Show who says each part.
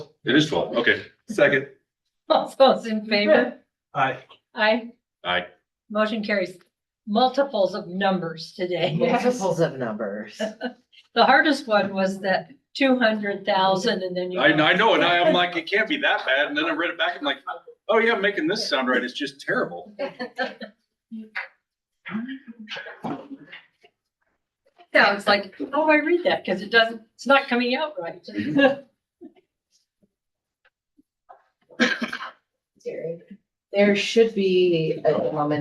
Speaker 1: It is twelve, okay,
Speaker 2: Second.
Speaker 3: All those in favor?
Speaker 2: Aye.
Speaker 3: Aye.
Speaker 1: Aye.
Speaker 3: Motion carries multiples of numbers today.
Speaker 4: Multiples of numbers.
Speaker 3: The hardest one was that two hundred thousand and then you.
Speaker 1: I, I know, and I, I'm like, it can't be that bad, and then I read it back, I'm like, oh yeah, making this sound right, it's just terrible.
Speaker 3: Yeah, it's like, how do I read that? Because it doesn't, it's not coming out right.
Speaker 4: There should be a element